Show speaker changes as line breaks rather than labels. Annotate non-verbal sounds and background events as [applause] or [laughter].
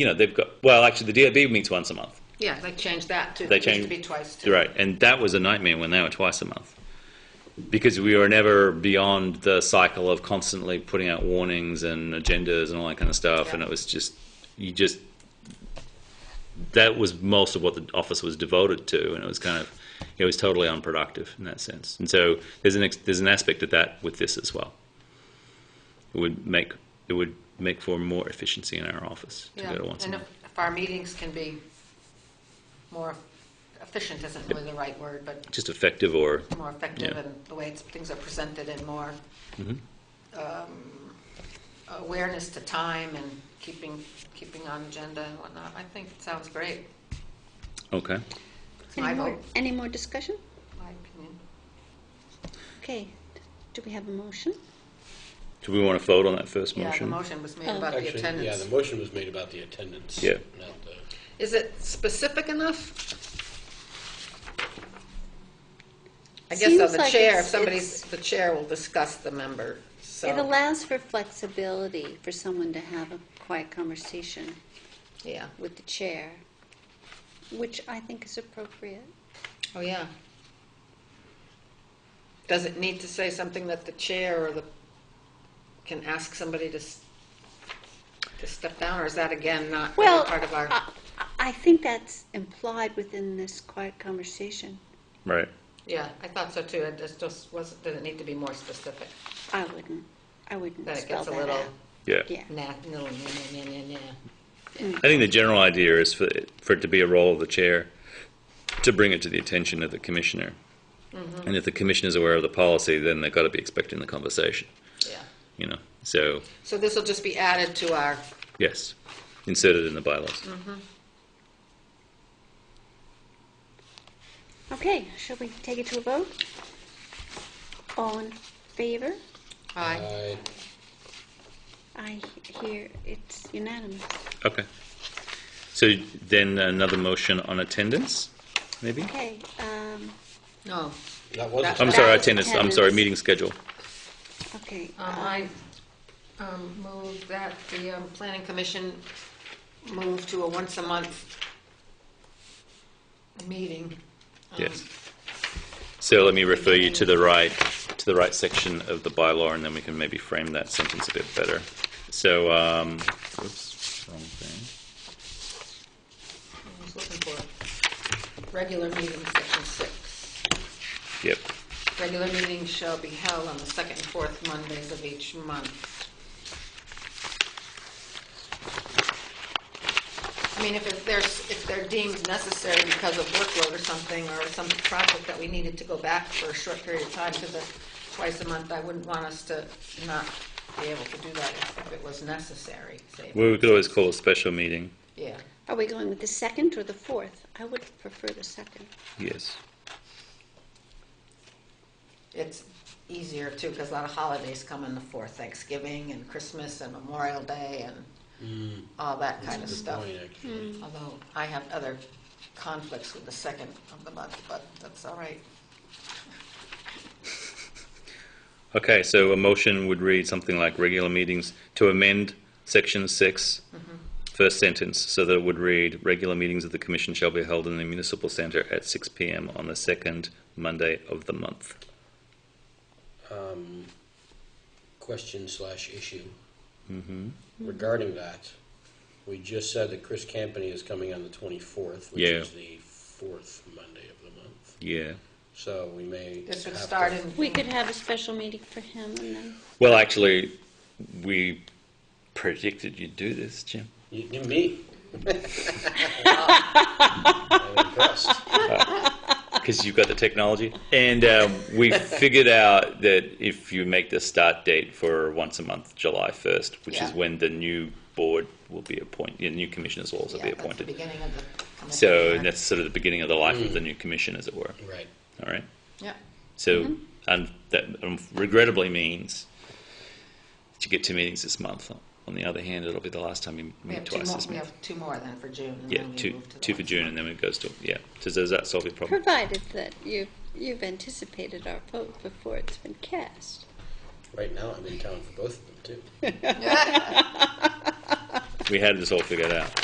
you know, they've got, well, actually, the DOB meets once a month.
Yeah, they changed that to,
They
it used to
changed-
be twice. too.
Right. And that was a nightmare when they were twice a month. Because we were never beyond the cycle of constantly putting out warnings and agendas and all that kind of stuff.
Yeah.
And it was just, you just, that was most of what the office was devoted to. And it was kind of, it was totally unproductive in that sense. And so there's an, ex- there's an aspect of that with this as well. It would make, it would make for more efficiency in our office to
Yeah,
go to once a
and if
month.
if our meetings can be more efficient, isn't really the right word, but
Just effective or
more effective
Yeah.
in the way it's- things are presented and more
Mm-hmm.
um, awareness to time and keeping, keeping on agenda and whatnot. I think it sounds great.
Okay.
It's my
Any more,
vote,
any more discussion?
my opinion.
Okay, do we have a motion?
Do we want to vote on that first
Yeah, the
motion?
motion was made
Oh.
about the
Um, Actually, yeah,
attendance.
the motion was made about the attendance.
Yeah.
not the-
Is it specific enough? I guess so,
Seems
the
like
chair, if
it's-
somebody's,
it's-
the chair will discuss the member,
It
so,
allows for flexibility for someone to have a quiet conversation
yeah.
with the chair, which I think is appropriate.
Oh, yeah. Does it need to say something that the chair or the, can ask somebody to, s- to step down, or is that again not really
Well, uh,
part of our?
I, I think that's implied within this quiet conversation,
Right.
Yeah, I thought so too, it just- just wasn't, did it need to be more specific?
I wouldn't, I wouldn't
That it
spell
gets a
that
little,
out.
Yeah.
Yeah,
nah, no, nah, nah, nah, nah, nah.
I think the general idea is for, for it to be a role of the chair to bring it to the attention of the commissioner. And if the commissioner's aware of the policy, then they've got to be expecting the conversation,
yeah.
you know? So,
So this will just be added to our,
yes, inserted in the bylaws.
okay, shall we take it to a vote? All in favor?
aye,
I-
I hear it's unanimous.
Okay. So then another motion on attendance, maybe?
Okay, um,
no,
That was,
That-
I'm
attendance.
sorry,
That was
attendance, I'm
attendance.
sorry, meeting schedule.
okay.
Um, I um, move that the um, Planning Commission move to a once-a-month meeting. um,
Yes. So let me refer you to the right, to the right section of the bylaw, and then we can maybe frame that sentence a bit better. So, um, oops, wrong thing.
I was looking for it. regular meeting, section six.
Yep,
Regular meetings shall be held on the second and fourth Mondays of each month. I mean, if it- there's, if they're deemed necessary because of workload or something, or some project that we needed to go back for a short period of time to the twice a month, I wouldn't want us to not be able to do that if- if it was necessary, say,
well, we could always call a special meeting,
yeah.
Are we going with the second or the fourth? I would prefer the second.
yes.
It's easier too, because a lot of holidays come in the fourth, Thanksgiving and Christmas and Memorial Day
Mm.
and all that kind of
Good
stuff.
point, actually.
Although I have other conflicts with the second of the month, but that's all right.
Okay, so a motion would read something like regular meetings to amend section six, first sentence, so that it would read, regular meetings of the commission shall be held in the municipal center at six PM on the second Monday of the month.
Hmm.
Um, Question slash issue.
Mm-hmm.
Regarding that, we just said that Chris Campany is coming on the 24th, which
Yeah.
is the fourth Monday of the month.
Yeah.
So we may.
This would
have to-
start in.
We could have a special meeting for him and then,
Well, actually, we predicted you'd do this, Jim.
You- you-
[laughs]
Me? I'm impressed.
because you've got the technology. And um,
[laughs]
we figured out that if you make the start date for once a month, July 1st, which is
Yeah.
when the new board will be appointed, the new commissioners will also
yeah,
be
that's the
appointed.
beginning of the commission.
So that's sort of the beginning of the life of the new commission, as it were.
Right.
All right.
Yeah,
So
Mm-hmm.
and that um, regrettably means that you get two meetings this month. On the other hand, it'll be the last time you
we
meet
have two
twice
more,
this
we
month.
have two more then for June. and
Yeah,
then we
two,
move to the
two for
ones
June,
month.
and then it goes to yeah. So does that solve your problem?
provided that you've, you've anticipated our vote before it's been cast.
Right now, I'm in town for both of them, too.
We had this all figured out.